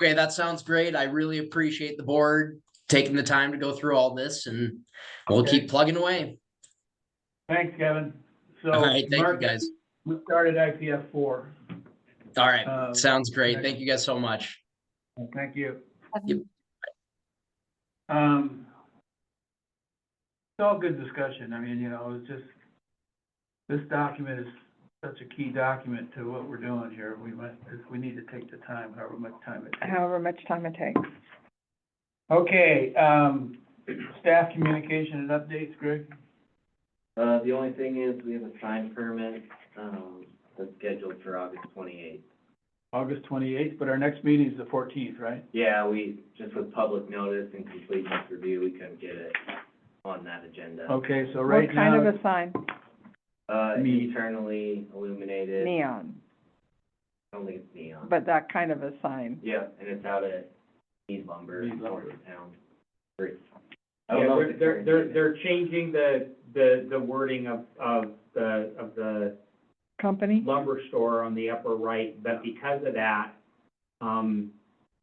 Okay, that sounds great. I really appreciate the board taking the time to go through all this and we'll Okay. keep plugging away. Thanks, Kevin. So. All right, thank you Mark, guys. We started IPF four. All right, Uh, sounds great. next- Thank you guys so much. Thank you. Yep. Um, it's all good discussion. I mean, you know, it's just, this document is such a key document to what we're doing here. We must, we need to take the time, however much time it takes. however much time it takes. Okay, um, staff communication and updates, Greg? Uh, the only thing is, we have a sign permit, um, that's scheduled for August twenty-eighth. August twenty-eighth, but our next meeting is the fourteenth, right? Yeah, we, just with public notice and completeness review, we couldn't get it on that Oh, agenda. Okay, so right What kind of now, a sign? Uh, Me. eternally illuminated, I Neon, don't think it's neon. but that kind of a sign. Yeah, and it's out at Need Lumber, Mead Lumber. north of town. Or- I don't Yeah, know if they're, it's they're, they're, current. they're changing the, the, the wording of, of the, of the Company? lumber store on the upper right, but because of that, um,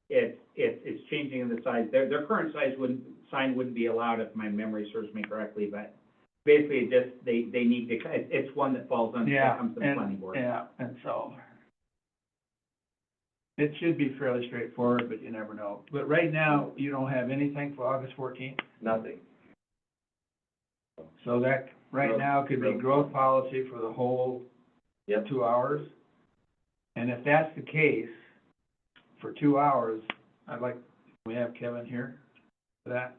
it, it, it's changing in the size, their, their current size wouldn't, sign wouldn't be allowed if my memory serves me correctly, but basically it just, they, they need to, it's, it's one that falls under, yeah, that comes to the planning and, board. yeah, and so. It should be fairly straightforward, but you never know. But right now, you don't have anything for August fourteenth, Nothing, so that, right Growth- now, could be growth growth policy for the whole Yep. two hours. And if that's the case, for two hours, I'd like, we have Kevin here for that.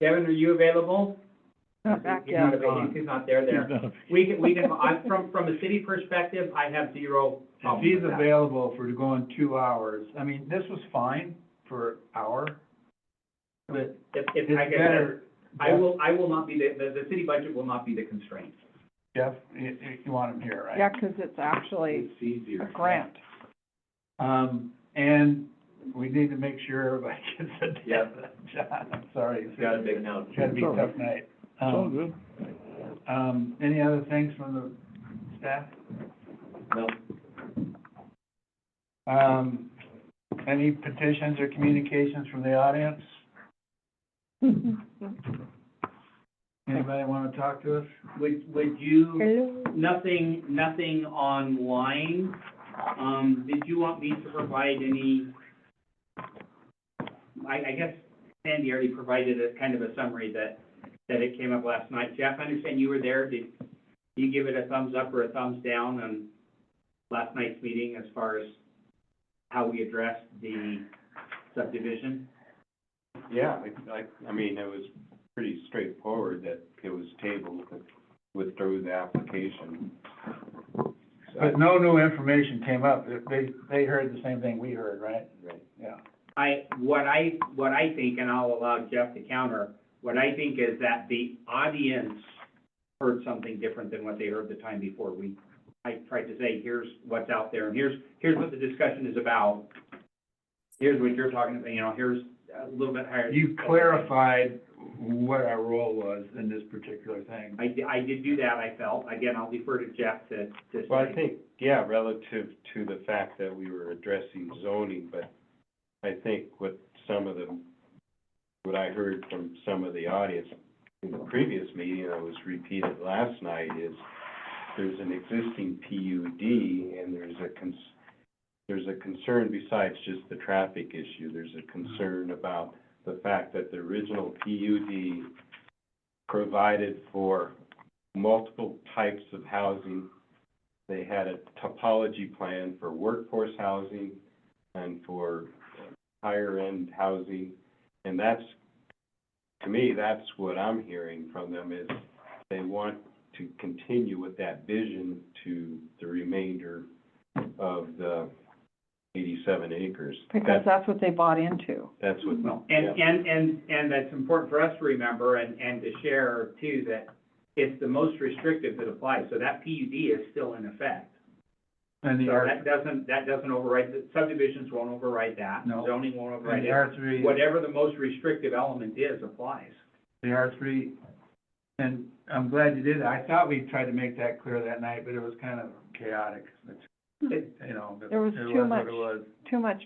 Kevin, are you available? Not back He's yet. not available, he's not there, there. We can, we can, I, from, from a city perspective, I have zero If problem he's with that. available for going two hours, I mean, this was fine for an hour, but If, if, it's like I said, better. I will, I will not be the, the, the city budget will not be the constraint. Jeff, you, you- you want him here, right? Yeah, 'cause it's actually a easier. grant. Um, and we need to make sure everybody gets a Yeah. John, I'm sorry. it's got a big note. It's gotta be a tough night. Um, good. Um, any other things from the staff? No, Um, any petitions or communications from the audience? Anybody wanna talk to us? Would, would you, Hello? nothing, nothing online, um, did you want me to provide any? I, I guess Sandy already provided a kind of a summary that, that it came up last night. Jeff, I understand you were there, did you give it a thumbs up or a thumbs down on last night's meeting as far as how we addressed the subdivision? Yeah, I, I, I mean, it was pretty straightforward that it was tabled, that withdrew the application. So, But no new information came up. They, they heard the same thing we heard, right? right. Yeah. I, what I, what I think, and I'll allow Jeff to counter, what I think is that the audience heard something different than what they heard the time before. We, I tried to say, here's what's out there, and here's, here's what the discussion is about. Here's what you're talking about, you know, here's a little bit higher. You clarified what our role was in this particular thing. I, di- I did do that, I felt. Again, I'll defer to Jeff to, to Well, I say. think, yeah, relative to the fact that we were addressing zoning, but I think what some of the, what I heard from some of the audience in the previous meeting, that was repeated last night, is there's an existing PUD, and there's a cons, there's a concern besides just the traffic issue, there's a concern about the fact that the original PUD provided for multiple types of housing they had a topology plan for workforce housing and for higher-end housing. And that's, to me, that's what I'm hearing from them is they want to continue with that vision to the remainder of the eighty-seven acres. Because That's, that's what they bought into. that's what, And, yeah. and, and, and that's important for us to remember and, and to share too, that it's the most restrictive that applies, so that PUD is still in effect. And the So R, that doesn't, that doesn't override, the subdivisions won't override that. No. Zoning won't and override the it. R three, Whatever the most restrictive element is applies. the R three, and I'm glad you did. I thought we tried to make that clear that night, but it was kind of chaotic. It's, You know, but There was it too was what much. it was. Too much